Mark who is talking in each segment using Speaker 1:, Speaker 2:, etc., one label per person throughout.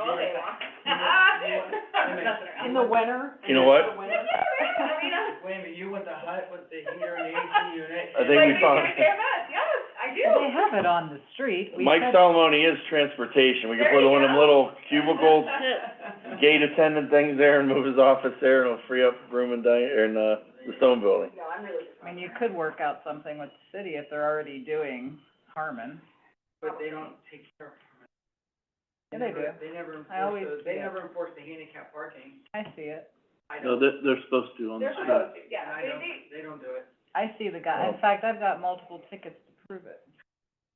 Speaker 1: all day long. Nothing around.
Speaker 2: In the winter?
Speaker 3: You know
Speaker 2: In
Speaker 3: what?
Speaker 2: the winter?
Speaker 4: Wait a minute, you want the hut with the heater and AC unit?
Speaker 3: I think we found-
Speaker 1: Like, they care about us, yes, I do.
Speaker 2: They have it on the street. We
Speaker 3: Mike
Speaker 2: had-
Speaker 3: Salamone is transportation, we can
Speaker 1: There
Speaker 3: put
Speaker 1: you
Speaker 3: one of them
Speaker 1: go.
Speaker 3: little cubicle gate attendant things there and move his office there, and it'll free up room and di- in, uh, the stone building.
Speaker 1: No, I'm really just.
Speaker 2: I mean, you could work out something with the city if they're already doing Harmon.
Speaker 4: But they don't take care of it.
Speaker 2: Yeah, they do.
Speaker 4: They never
Speaker 2: I always
Speaker 4: enforce those, they
Speaker 2: do.
Speaker 4: never enforce the handicap parking.
Speaker 2: I see it.
Speaker 4: I
Speaker 5: No,
Speaker 4: don't,
Speaker 5: they're, they're supposed to on the
Speaker 1: They're
Speaker 5: street.
Speaker 1: supposed to, yeah,
Speaker 4: I
Speaker 1: they,
Speaker 4: don't,
Speaker 1: they,
Speaker 4: they don't do it.
Speaker 2: I see the guy. In
Speaker 3: Well-
Speaker 2: fact, I've got multiple tickets to prove it.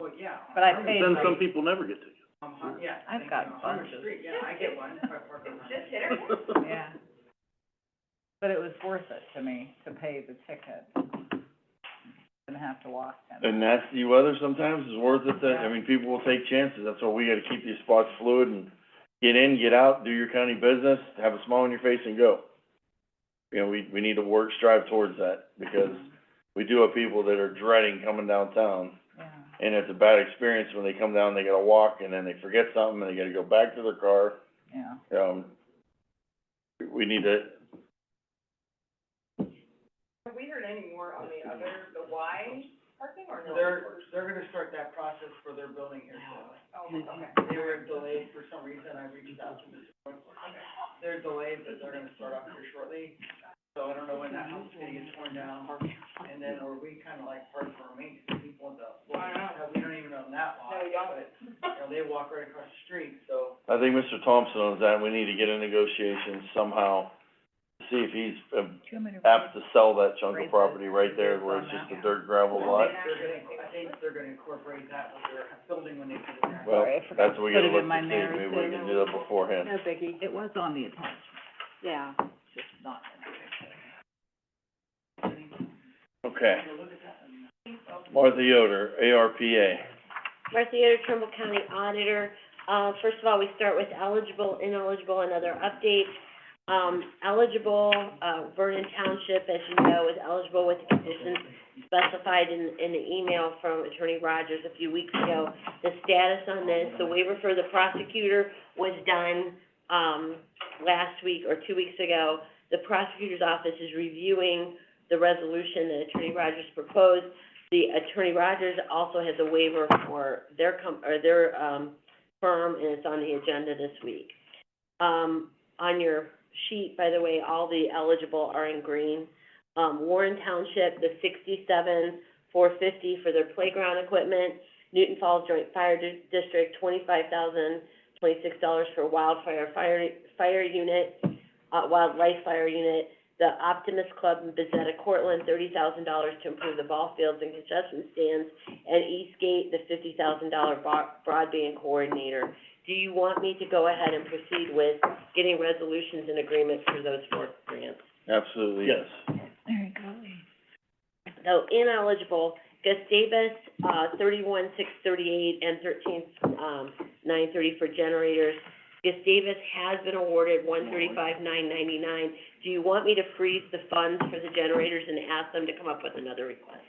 Speaker 4: Well, yeah. on
Speaker 2: But I
Speaker 4: Harmon
Speaker 2: paid
Speaker 5: Then
Speaker 4: Street,
Speaker 5: some people never get to.
Speaker 4: on Har- yeah.
Speaker 2: I've
Speaker 4: thank
Speaker 2: got
Speaker 4: you. On Harmon
Speaker 2: bunches.
Speaker 4: Street, yeah, I get one, if I park on Harmon.
Speaker 1: just hit her.
Speaker 2: Yeah. But it was worth it to me to pay the ticket. Didn't have to walk in.
Speaker 3: And nasty weather sometimes is worth it, that, I mean, people will take chances, that's why we gotta keep these spots fluid and get in, get out, do your county business, have a smile on your face and go. You know, we, we need to work, strive towards that, because we do have people that are dreading coming downtown.
Speaker 2: Yeah.
Speaker 3: And it's a bad experience when they come down, they gotta walk, and then they forget something, and they gotta go back to their car,
Speaker 2: Yeah.
Speaker 3: um, we need to,
Speaker 1: Have we heard any more on the other, the Y parking or no?
Speaker 4: They're, they're gonna start that process for their building here, so.
Speaker 1: Oh, okay.
Speaker 4: They were delayed for some reason, I reached out to Mr. Wentworth. They're delayed, but they're gonna start up here shortly, so I don't know when that house is gonna get torn down. And then, or we kinda like part for our maintenance, people in the,
Speaker 1: I know.
Speaker 4: we don't even own that lot,
Speaker 1: No, we don't.
Speaker 4: but, you know, they walk right across the street, so.
Speaker 3: I think Mr. Thompson owns that, we need to get in negotiations somehow, see if he's uh,
Speaker 2: Too many.
Speaker 3: apt to sell that chunk
Speaker 2: Raise
Speaker 3: of
Speaker 2: the-
Speaker 3: property right there where it's
Speaker 2: raise on
Speaker 3: just a
Speaker 2: that.
Speaker 3: dirt gravel
Speaker 4: I
Speaker 3: lot.
Speaker 4: think they're gonna, I think they're gonna incorporate that with their building when they put it there.
Speaker 3: Well,
Speaker 2: Sorry, I forgot
Speaker 3: that's
Speaker 2: to
Speaker 3: what we
Speaker 2: put
Speaker 3: gotta
Speaker 2: it
Speaker 3: look
Speaker 2: in my
Speaker 3: to see, maybe we can do that beforehand.
Speaker 2: No biggie. It was on the attachment. Yeah. Just not in the
Speaker 3: Okay. Martha Yoder, ARPA.
Speaker 6: Martha Yoder, Trumbull County Auditor. Uh, first of all, we start with eligible, ineligible, and other updates. Um, eligible, uh, Vernon Township, as you know, is eligible with the conditions specified in, in the email from Attorney Rogers a few weeks ago. The status on this, the waiver for the prosecutor was done, um, last week or two weeks ago. The prosecutor's office is reviewing the resolution that Attorney Rogers proposed. The Attorney Rogers also has a waiver for their com- or their, um, firm, and it's on the agenda this week. Um, on your sheet, by the way, all the eligible are in green. Um, Warren Township, the sixty-seven, four fifty for their playground equipment. Newton Falls Joint Fire Di- District, twenty-five thousand, twenty-six dollars for wildfire fire, fire unit, uh, wildlife fire unit. The Optimist Club in Bezetta Cortland, thirty thousand dollars to improve the ball fields and concession stands. And Eastgate, the fifty thousand dollar broadband coordinator. Do you want me to go ahead and proceed with getting resolutions and agreements for those four grants?
Speaker 3: Absolutely, yes.
Speaker 2: There you go.
Speaker 6: So ineligible, Gus Davis, uh, thirty-one, six thirty-eight, and thirteen, um, nine thirty for generators. Gus Davis has been awarded one thirty-five, nine ninety-nine. Do you want me to freeze the funds for the generators and ask them to come up with another request?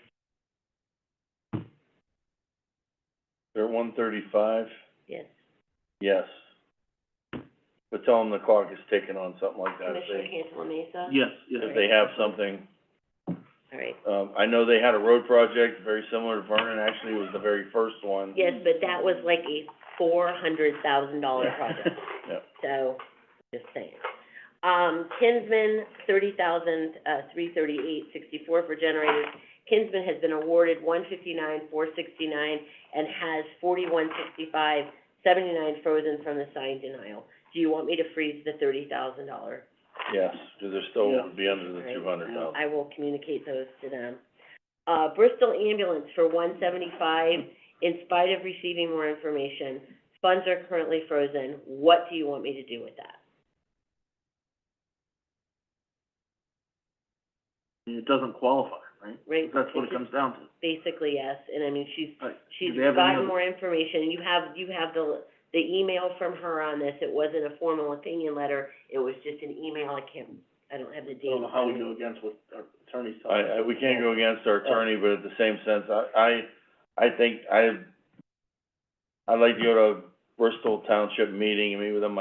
Speaker 3: They're at one thirty-five,
Speaker 6: Yes.
Speaker 3: yes. But tell them the clock is ticking on something like that, if
Speaker 6: Commissioner
Speaker 3: they,
Speaker 6: Cantala Mesa?
Speaker 5: Yes, yes.
Speaker 3: if they have something.
Speaker 6: All right.
Speaker 3: Um, I know they had a road project very similar to Vernon, actually, it was the very first one.
Speaker 6: Yes, but that was like a four hundred thousand dollar project.
Speaker 3: Yep.
Speaker 6: So, just saying. Um, Kinsman, thirty thousand, uh, three thirty-eight, sixty-four for generators. Kinsman has been awarded one fifty-nine, four sixty-nine, and has forty-one sixty-five, seventy-nine frozen from the signed denial. Do you want me to freeze the thirty thousand dollar?
Speaker 3: Yes, because they're still,
Speaker 5: Yeah.
Speaker 3: would be under the
Speaker 6: Right.
Speaker 3: two hundred thousand.
Speaker 6: I will communicate those to them. Uh, Bristol ambulance for one seventy-five, in spite of receiving more information, funds are currently frozen, what do you want me to do with that?
Speaker 5: It doesn't qualify, right?
Speaker 6: Right,
Speaker 5: That's what it
Speaker 6: it's
Speaker 5: comes down to.
Speaker 6: basically yes, and I mean, she's,
Speaker 5: Like,
Speaker 6: she's
Speaker 5: do they have
Speaker 6: gotten
Speaker 5: any-
Speaker 6: more information, you have, you have the, the email from her on this, it wasn't a formal opinion letter, it was just an email, I can't, I don't have the
Speaker 5: I
Speaker 6: date.
Speaker 5: don't know how we go against what our attorney's telling us.
Speaker 3: I, I, we can't go against our attorney, but at the same sense, I, I, I think I, I'd like to go to a Bristol Township meeting and meet with them